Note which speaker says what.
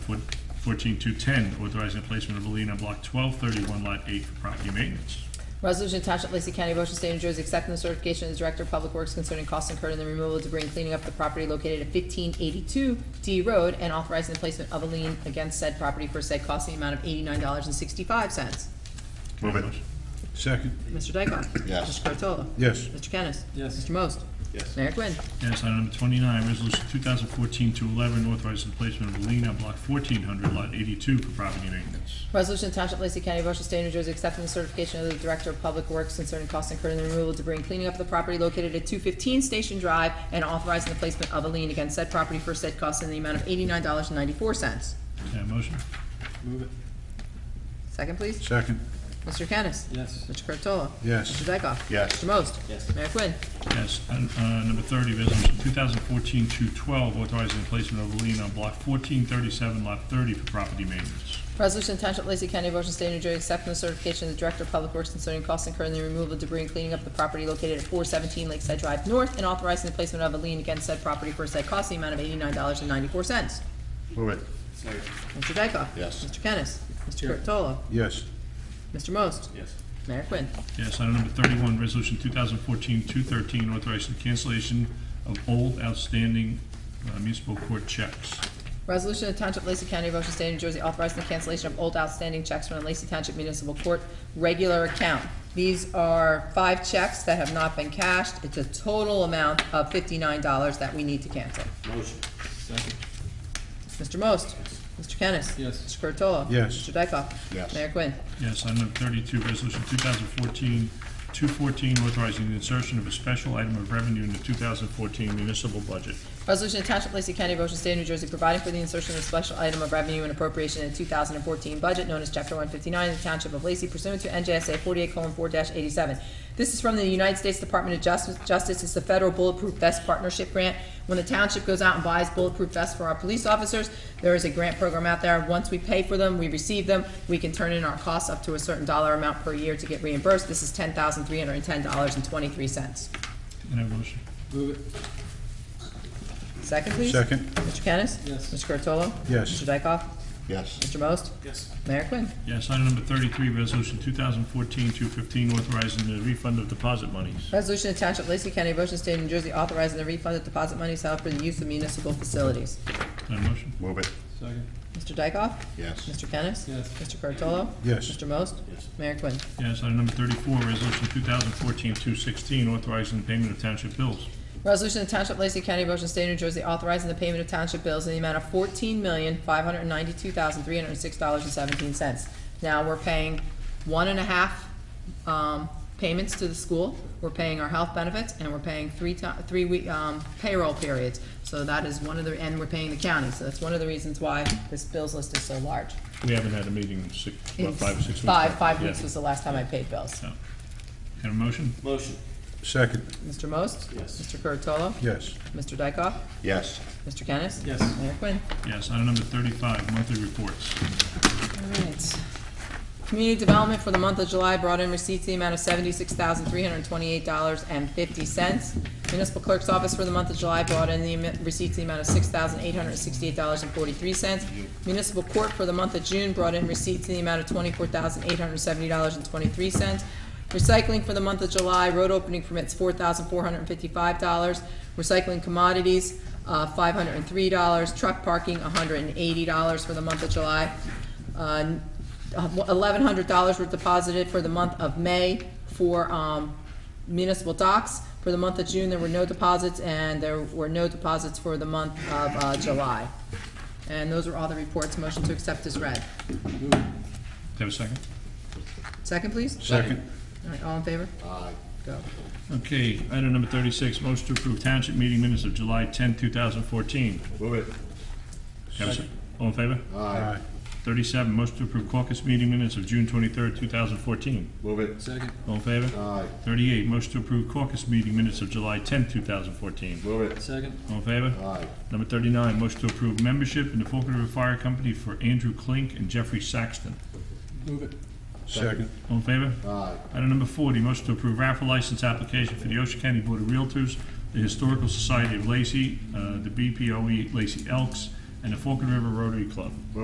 Speaker 1: Fourteen two ten, authorizing the placement of a lien on block twelve thirty-one, lot eight for property maintenance.
Speaker 2: Resolution to Township of Lacey County, Ocean State, New Jersey, accepting the certification of the Director of Public Works concerning costs incurred in the removal of debris and cleaning up the property located at fifteen eighty-two D Road and authorizing the placement of a lien against said property for said cost in the amount of eighty-nine dollars and sixty-five cents.
Speaker 1: Can I have a
Speaker 3: Move it.
Speaker 1: motion?
Speaker 3: Second.
Speaker 2: Mr. Dykoff?
Speaker 3: Yes.
Speaker 2: Mr. Curatolo?
Speaker 3: Yes.
Speaker 2: Mr. Kennis?
Speaker 4: Yes.
Speaker 2: Mr. Most?
Speaker 3: Yes.
Speaker 2: Mayor Quinn?
Speaker 1: Yes, item number twenty-nine, resolution two thousand fourteen two eleven, authorizing the placement of a lien on block fourteen hundred, lot eighty-two for property maintenance.
Speaker 2: Resolution to Township of Lacey County, Ocean State, New Jersey, accepting the certification of the Director of Public Works concerning costs incurred in the removal of debris and cleaning up the property located at two fifteen Station Drive and authorizing the placement of a lien against said property for said costs in the amount of eighty-nine dollars and ninety-four cents.
Speaker 1: Can I have a motion?
Speaker 4: Move it.
Speaker 2: Second, please.
Speaker 3: Second.
Speaker 2: Mr. Kennis?
Speaker 4: Yes.
Speaker 2: Mr. Curatolo?
Speaker 3: Yes.
Speaker 2: Mr. Dykoff?
Speaker 3: Yes.
Speaker 2: Mr. Most?
Speaker 4: Yes.
Speaker 2: Mayor Quinn?
Speaker 1: Yes, and, uh, number thirty, resolution two thousand fourteen two twelve, authorizing the placement of a lien on block fourteen thirty-seven, lot thirty for property maintenance.
Speaker 2: Resolution to Township of Lacey County, Ocean State, New Jersey, accepting the certification of the Director of Public Works concerning costs incurred in the removal of debris and cleaning up the property located at four seventeen Lakeside Drive North and authorizing the placement of a lien against said property for said cost in the amount of eighty-nine dollars and ninety-four cents.
Speaker 3: Move it.
Speaker 4: Second.
Speaker 2: Mr. Dykoff?
Speaker 3: Yes.
Speaker 2: Mr. Kennis? Mr.
Speaker 4: Here.
Speaker 2: Curatolo?
Speaker 3: Yes.
Speaker 2: Mr. Most?
Speaker 4: Yes.
Speaker 2: Mayor Quinn?
Speaker 1: Yes, item number thirty-one, resolution 2014-213, authorizing the cancellation of old outstanding uh, municipal court checks.
Speaker 2: Resolution of Township of Lacey County, Ocean State, New Jersey, authorizing the cancellation of old outstanding checks from the Lacey Township Municipal Court regular account. These are five checks that have not been cashed. It's a total amount of fifty-nine dollars that we need to cancel.
Speaker 4: Motion. Second.
Speaker 2: Mr. Most? Mr. Kennis?
Speaker 4: Yes.
Speaker 2: Mr. Curatolo?
Speaker 3: Yes.
Speaker 2: Mr. Dykoff?
Speaker 3: Yes.
Speaker 2: Mayor Quinn?
Speaker 1: Yes, item number thirty-two, resolution 2014-214, authorizing the insertion of a special item of revenue in the two thousand fourteen municipal budget.
Speaker 2: Resolution to Township of Lacey County, Ocean State, New Jersey, providing for the insertion of a special item of revenue and appropriation in the two thousand and fourteen budget known as Chapter one fifty-nine of the Township of Lacey pursuant to NJSA forty-eight four eighty-seven. This is from the United States Department of Justice, Justice, it's the Federal Bulletproof Vest Partnership Grant. When the township goes out and buys bulletproof vests for our police officers, there is a grant program out there. Once we pay for them, we receive them, we can turn in our costs up to a certain dollar amount per year to get reimbursed. This is ten thousand three hundred and ten dollars and twenty-three cents.
Speaker 1: Can I have a motion?
Speaker 4: Move it.
Speaker 2: Second, please.
Speaker 3: Second.
Speaker 2: Mr. Kennis?
Speaker 4: Yes.
Speaker 2: Mr. Curatolo?
Speaker 3: Yes.
Speaker 2: Mr. Dykoff?
Speaker 3: Yes.
Speaker 2: Mr. Most?
Speaker 4: Yes.
Speaker 2: Mayor Quinn.
Speaker 1: Yes, item number thirty-three, resolution 2014-215, authorizing the refund of deposit monies.
Speaker 2: Resolution to Township of Lacey County, Ocean State, New Jersey, authorizing the refund of deposit money held for the use of municipal facilities.
Speaker 1: Can I have a motion?
Speaker 3: Move it.
Speaker 4: Second.
Speaker 2: Mr. Dykoff?
Speaker 3: Yes.
Speaker 2: Mr. Kennis?
Speaker 4: Yes.
Speaker 2: Mr. Curatolo?
Speaker 3: Yes.
Speaker 2: Mr. Most?
Speaker 4: Yes.
Speaker 2: Mayor Quinn.
Speaker 1: Yes, item number thirty-four, resolution 2014-216, authorizing the payment of township bills.
Speaker 2: Resolution to Township of Lacey County, Ocean State, New Jersey, authorizing the payment of township bills in the amount of fourteen million, five hundred and ninety-two thousand, three hundred and six dollars and seventeen cents. Now, we're paying one and a half, um, payments to the school, we're paying our health benefits, and we're paying three ti- three week, um, payroll periods. So that is one of the, and we're paying the county, so that's one of the reasons why this bills list is so large.
Speaker 1: We haven't had a meeting in six, what, five, or six weeks?
Speaker 2: Five, five weeks
Speaker 1: Yeah.
Speaker 2: was the last time I paid bills.
Speaker 1: So, Can I have a motion?
Speaker 4: Motion.
Speaker 3: Second.
Speaker 2: Mr. Most?
Speaker 4: Yes.
Speaker 2: Mr. Curatolo?
Speaker 3: Yes.
Speaker 2: Mr. Dykoff?
Speaker 3: Yes.
Speaker 2: Mr. Kennis?
Speaker 4: Yes.
Speaker 2: Mayor Quinn.
Speaker 1: Yes, item number thirty-five, monthly reports.
Speaker 2: All right. Community Development for the month of July brought in receipts in the amount of seventy-six thousand, three hundred and twenty-eight dollars and fifty cents. Municipal Clerk's Office for the month of July brought in the emi- receipts in the amount of six thousand, eight hundred and sixty-eight dollars and forty-three cents. Municipal Court for the month of June brought in receipts in the amount of twenty-four thousand, eight hundred and seventy dollars and twenty-three cents. Recycling for the month of July, road opening permits, four thousand four hundred and fifty-five dollars. Recycling commodities, uh, five hundred and three dollars. Truck parking, hundred and eighty dollars for the month of July. Uh, Eleven hundred dollars were deposited for the month of May for, um, municipal docks. For the month of June, there were no deposits, and there were no deposits for the month of, uh, July. And those are all the reports. Motion to accept is read.
Speaker 4: Move it.
Speaker 1: Do I have a second?
Speaker 2: Second, please.
Speaker 3: Second.
Speaker 2: All right, all in favor?
Speaker 3: Aye.
Speaker 2: Go.
Speaker 1: Okay, item number thirty-six, motion to approve township meeting minutes of July tenth, two thousand fourteen.
Speaker 3: Move it.
Speaker 1: All in favor?
Speaker 3: Aye.
Speaker 1: Thirty-seven, motion to approve caucus meeting minutes of June twenty-third, two thousand fourteen.
Speaker 3: Move it.
Speaker 4: Second.
Speaker 1: All in favor?
Speaker 3: Aye.
Speaker 1: Thirty-eight, motion to approve caucus meeting minutes of July tenth, two thousand fourteen.
Speaker 3: Move it.
Speaker 4: Second.
Speaker 1: All in favor?
Speaker 3: Aye.
Speaker 1: Number thirty-nine, motion to approve membership in the Falcon River Fire Company for Andrew Klink and Jeffrey Saxton.
Speaker 4: Move it.
Speaker 3: Second.
Speaker 1: All in favor?
Speaker 3: Aye.
Speaker 1: Item number forty, motion to approve raffle license application for the Ocean County Board of Realtors, the Historical E Society of Lacey, uh, the BPOE Lacey Elks, and the Forked River Rotary Club.